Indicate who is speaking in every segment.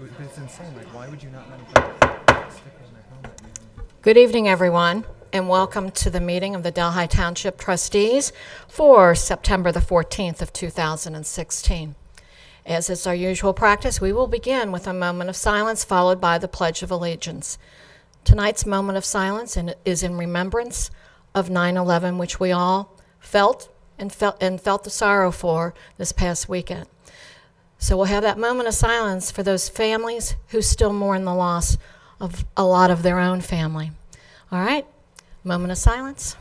Speaker 1: But it's insane. Like, why would you not let them stick it on their helmet, man?
Speaker 2: Good evening, everyone, and welcome to the meeting of the Delhi Township Trustees for September the 14th of 2016. As is our usual practice, we will begin with a moment of silence followed by the Pledge of Allegiance. Tonight's moment of silence in- is in remembrance of 9/11, which we all felt and felt and felt the sorrow for this past weekend. So we'll have that moment of silence for those families who still mourn the loss of a lot of their own family. All right, moment of silence.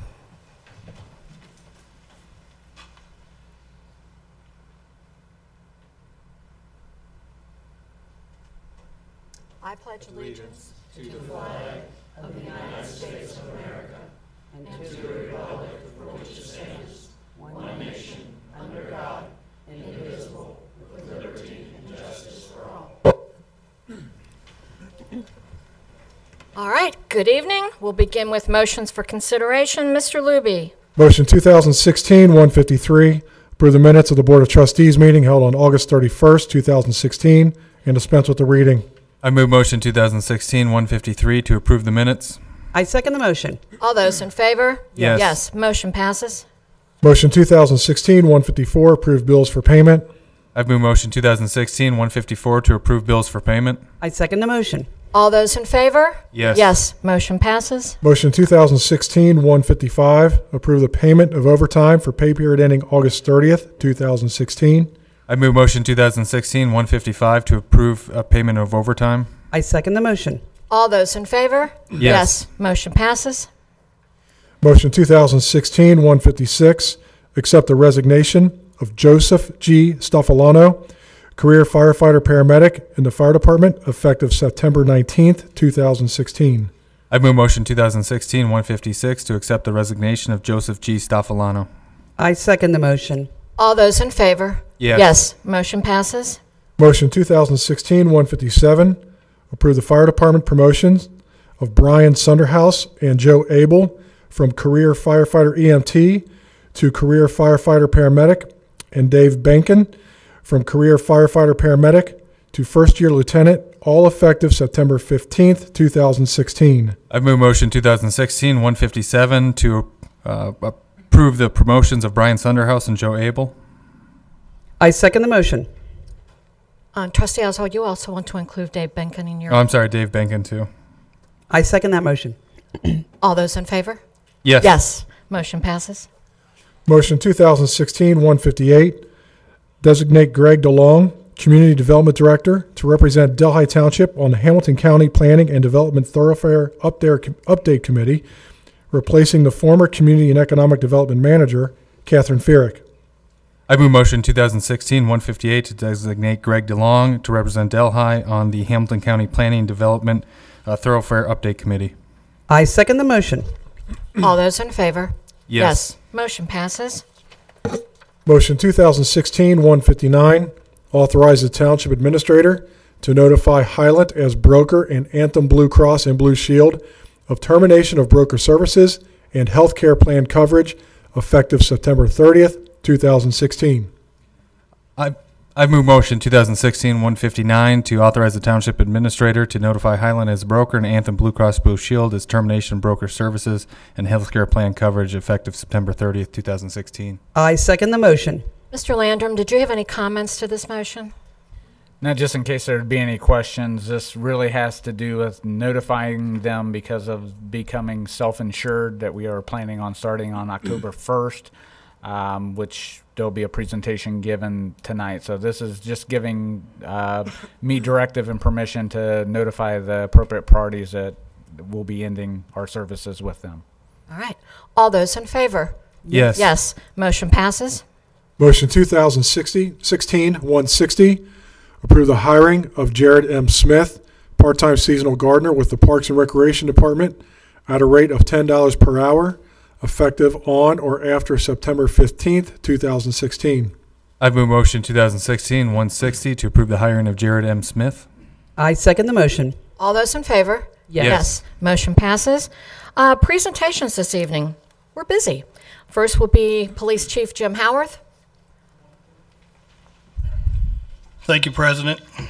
Speaker 2: I pledge allegiance. All right, good evening. We'll begin with motions for consideration. Mr. Luby,
Speaker 3: Motion 2016-153, approve the minutes of the Board of Trustees meeting held on August 31st, 2016, and dispense with the reading.
Speaker 4: I move motion 2016 153 to approve the minutes.
Speaker 5: I second the motion.
Speaker 2: all those in favor?
Speaker 4: Yes.
Speaker 2: Yes, motion passes.
Speaker 3: Motion 2016-154, approve bills for payment.
Speaker 4: I move motion 2016 154 to approve bills for payment.
Speaker 5: I second the motion.
Speaker 2: All those in favor?
Speaker 4: Yes.
Speaker 2: Yes, motion passes.
Speaker 3: Motion 2016-155, approve the payment of overtime for pay period ending August 30th, 2016.
Speaker 4: I move motion 2016 155 to approve a payment of overtime.
Speaker 5: I second the motion.
Speaker 2: All those in favor?
Speaker 4: Yes.
Speaker 2: motion passes.
Speaker 3: Motion 2016-156, accept the resignation of Joseph G. Stoffolano, career firefighter/paramedic in the Fire Department, effective September 19th, 2016.
Speaker 4: I move motion 2016 156 to accept the resignation of Joseph G. Stoffolano.
Speaker 5: I second the motion.
Speaker 2: All those in favor?
Speaker 4: Yes.
Speaker 2: Yes, motion passes.
Speaker 3: Motion 2016-157, approve the Fire Department promotions of Brian Sunderhouse and Joe Abel from career firefighter EMT to career firefighter/paramedic, and Dave Benkin from career firefighter/paramedic to first-year lieutenant, all effective September 15th, 2016.
Speaker 4: I move motion 2016 157 to uh, approve the promotions of Brian Sunderhouse and Joe Abel.
Speaker 5: I second the motion.
Speaker 2: Uh, Trustee Oswald, you also want to include Dave Benkin in your.
Speaker 4: Oh, I'm sorry, Dave Benkin, too.
Speaker 5: I second that motion.
Speaker 2: All those in favor?
Speaker 4: Yes.
Speaker 2: Yes, motion passes.
Speaker 3: Motion 2016-158, designate Greg DeLong, Community Development Director, to represent Delhi Township on the Hamilton County Planning and Development Thoroughfare Update Update Committee, replacing the former Community and Economic Development Manager, Catherine Fierick.
Speaker 4: I move motion 2016-158 to designate Greg DeLong to represent Delhi on the Hamilton County Planning and Development uh, Thoroughfare Update Committee.
Speaker 5: I second the motion.
Speaker 2: All those in favor? Motion passes.
Speaker 3: Motion 2016-159, authorize the Township Administrator to notify Highland as broker and Anthem Blue Cross and Blue Shield of termination of broker services and healthcare plan coverage effective September 30th, 2016.
Speaker 4: I, I move motion 2016-159 to authorize the Township Administrator to notify Highland as broker and Anthem Blue Cross Blue Shield as termination broker services and healthcare plan coverage effective September 30th, 2016.
Speaker 5: I second the motion.
Speaker 2: Mr. Landrum, did you have any comments to this motion?
Speaker 6: Now, just in case there'd be any questions, this really has to do with notifying them because of becoming self-insured that we are planning on starting on October 1st, um, which there'll be a presentation given tonight. So this is just giving uh, me directive and permission to notify the appropriate parties that will be ending our services with them.
Speaker 2: All right. All those in favor?
Speaker 4: Yes.
Speaker 2: Yes, motion passes.
Speaker 3: Motion 2016-160, approve the hiring of Jared M. Smith, part-time seasonal gardener with the Parks and Recreation Department at a rate of $10 per hour, effective on or after September 15th, 2016.
Speaker 4: I move motion 2016-160 to approve the hiring of Jared M. Smith.
Speaker 5: I second the motion.
Speaker 2: All those in favor?
Speaker 5: Yes.
Speaker 2: Motion passes. Uh, presentations this evening. We're busy. First will be Police Chief Jim Howarth.
Speaker 7: Thank you, President.